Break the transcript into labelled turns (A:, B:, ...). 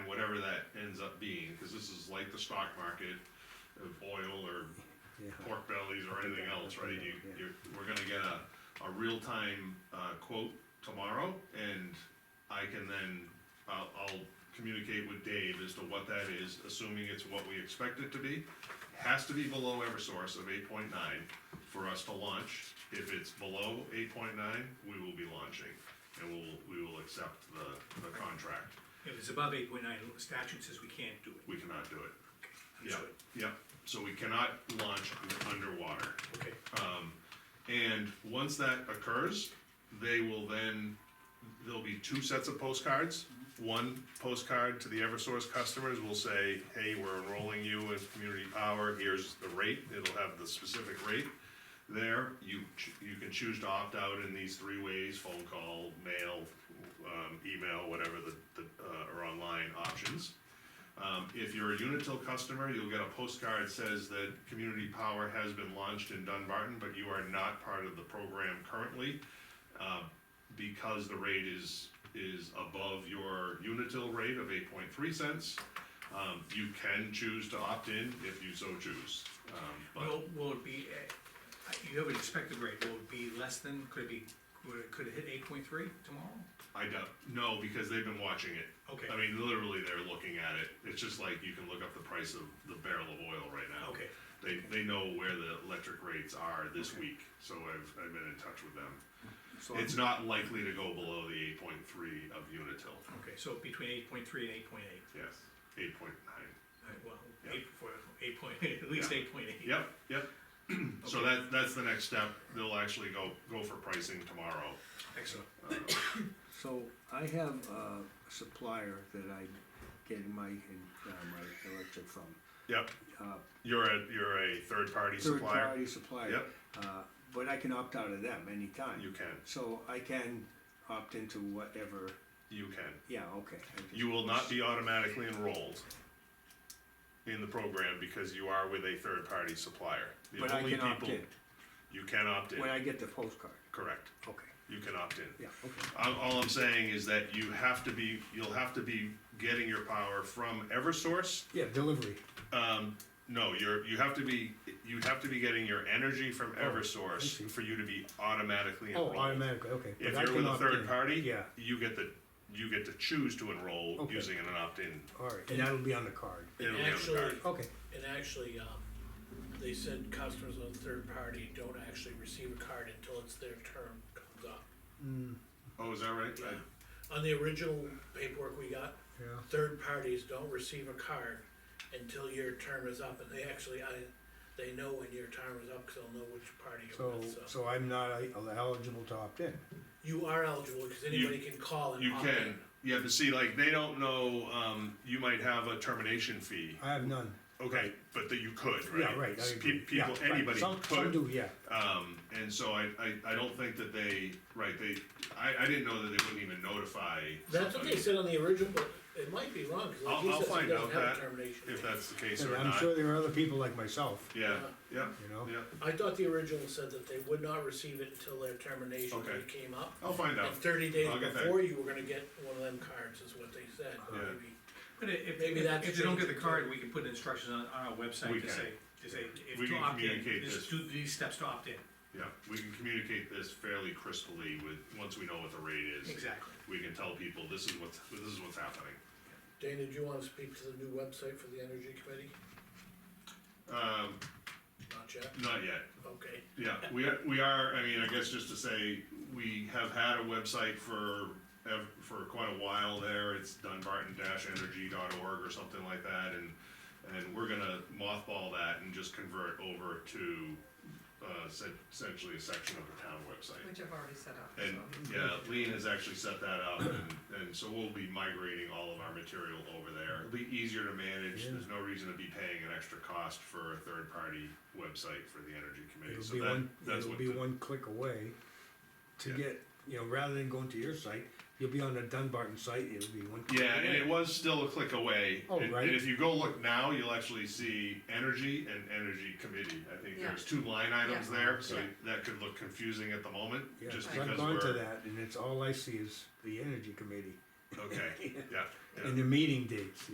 A: businesses like the stock market of oil or
B: Yeah.
A: pork bellies or anything else, right? You, you're, we're gonna get a, a real-time, uh, quote tomorrow, and I can then, I'll, I'll communicate with Dave as to what that is, assuming it's what we expect it to be. Has to be below Eversource of eight point nine for us to launch. If it's below eight point nine, we will be launching, and we'll, we will accept the, the contract.
C: If it's above eight point nine, statute says we can't do it.
A: We cannot do it. Yeah,
C: Understood.
A: yeah, so we cannot launch underwater.
C: Okay,
A: And once that occurs, they will then, there'll be two sets of postcards. One postcard to the Eversource customers will say, hey, we're enrolling you in Community Power, here's the rate, it'll have the specific rate there. You, ch- you can choose to opt out in these three ways, phone call, mail, um, email, whatever the, the, uh, or online options. Um, if you're a Unitil customer, you'll get a postcard says that Community Power has been launched in Dunbarton, but you are not part of the program currently. uh, Because the rate is, is above your Unitil rate of eight point three cents, um, you can choose to opt in if you so choose. Um, But
C: will, will it be, uh, you have an expected rate, will it be less than, could it be, would it, could it hit eight point three tomorrow?
A: I doubt, no, because they've been watching it.
C: Okay.
A: I mean, literally, they're looking at it. It's just like you can look up the price of the barrel of oil right now.
C: Okay.
A: They, they know where the electric rates are this week, so I've, I've been in touch with them.
C: So-
A: It's not likely to go below the eight point three of Unitil,
C: Okay, so between eight point three and eight point eight,
A: yes, eight point nine,
C: well,
A: Yeah.
C: eight, for, eight point, at least
A: Yeah.
C: eight point eight.
A: yep, yep. So
C: Okay.
A: that, that's the next step, they'll actually go, go for pricing tomorrow.
C: Excellent,
B: So I have a supplier that I get my, uh, my electric from.
A: Yep,
B: Uh,
A: you're a, you're a third-party
B: Third
A: supplier,
B: party supplier.
A: Yep.
B: Uh, But I can opt out of them anytime.
A: you can,
B: So I can opt into whatever,
A: you can.
B: yeah, okay. I just-
A: You will not be automatically enrolled in the program because you are with a third-party supplier. The
B: But I
A: only
B: can opt
A: people-
B: in
A: You can opt in,
B: when I get the postcard.
A: correct,
B: Okay,
A: you can opt in.
B: yeah, okay.
A: All, all I'm saying is that you have to be, you'll have to be getting your power from Eversource.
B: Yeah, delivery.
A: Um, no, you're, you have to be, you have to be getting your energy from Eversource
B: Oh, see.
A: for you to be automatically
B: Oh,
A: enrolled.
B: automatically, okay.
A: If
B: But I
A: you're
B: can
A: with a
B: opt
A: third
B: in.
A: party,
B: Yeah,
A: you get the, you get to choose to enroll
B: Okay.
A: using an opt-in.
B: all right, and that'll be on the card.
A: It'll be on the
D: Actually, oh,
A: card.
B: Okay,
D: And actually, um, they said customers on third party don't actually receive a card until it's their term comes up.
A: Oh, is that right? I-
D: On the original paperwork we got,
B: yeah.
D: third parties don't receive a card until your term is up, and they actually, I, they know when your term is up, cause they'll know which party you're
B: So,
D: with, so.
B: so I'm not uh, eligible to opt in?
D: You are eligible, cause anybody can call and
A: You
D: opt in.
A: can, yeah, but see, like, they don't know, um, you might have a termination fee,
B: I have none.
A: okay, but that you could, right?
B: Yeah, right. I
A: S- pe-
B: agree. Yeah,
A: People,
B: right.
A: anybody
B: Some- Some
A: could,
B: do, yeah.
A: um, and so I, I, I don't think that they, right, they, I, I didn't know that they wouldn't even notify
D: That's what they
A: somebody.
D: said on the original, but it might be wrong, cause like
A: I'll,
D: he
A: I'll
D: says he
A: find out
D: doesn't have
A: that,
D: a termination.
A: if
D: fee.
A: that's the case
B: And
A: or
B: I'm
A: not,
B: sure there are other people like myself,
A: yeah, yeah,
B: you know?
A: yeah,
D: I thought the original said that they would not receive it until their termination
A: Okay.
D: date came up.
A: I'll find out,
D: And thirty days
A: I'll get that.
D: before you were gonna get one of them cards, is what they said,
A: Yeah.
D: maybe.
C: But i- if,
D: Maybe
C: if
D: that's
C: if they don't get the
D: changed.
C: card, we can put instructions on, on our website
A: We
C: to
A: can.
C: say, to say,
A: We
C: if to
A: can
C: opt in,
A: communicate
C: this,
A: this.
C: do these steps to opt in,
A: yeah, we can communicate this fairly crisply with, once we know what the rate is.
C: exactly.
A: We can tell people, this is what's, this is what's happening.
D: Dana, do you wanna speak to the new website for the energy committee?
A: Um,
D: Not yet,
A: not yet,
D: okay.
A: Yeah, we are, we are, I mean, I guess just to say, we have had a website for, ev- for quite a while there, it's dunbarton-energy.org or something like that, and, and we're gonna mothball that and just convert over to, uh, se- essentially a section of the town website.
E: Which I've already set up,
A: And,
E: so.
A: yeah, Lean has actually set that up, and, and so we'll be migrating all of our material over there. It'll be easier to manage, there's no reason to be paying an extra cost for a third-party website for the energy committee,
B: It'll
A: so
B: be
A: that,
B: one,
A: that's
B: it'll
A: what.
B: be
A: the-
B: one click away to
A: Yeah.
B: get, you know, rather than going to your site, you'll be on the Dunbarton site, it'll be one. click
A: Yeah, and
B: away.
A: it was still a click away.
B: Oh,
A: and,
B: right.
A: and if you go look now, you'll actually see energy and energy committee. I think
E: Yeah.
A: there's two line items
E: Yeah.
A: there, so
E: Yeah.
A: that could look confusing at the moment,
B: Yeah,
A: just
B: 'cause
A: because
B: I've gone to
A: we're
B: that and it's, all I see is the energy committee
A: okay. Yeah, yeah.
B: and the meeting dates,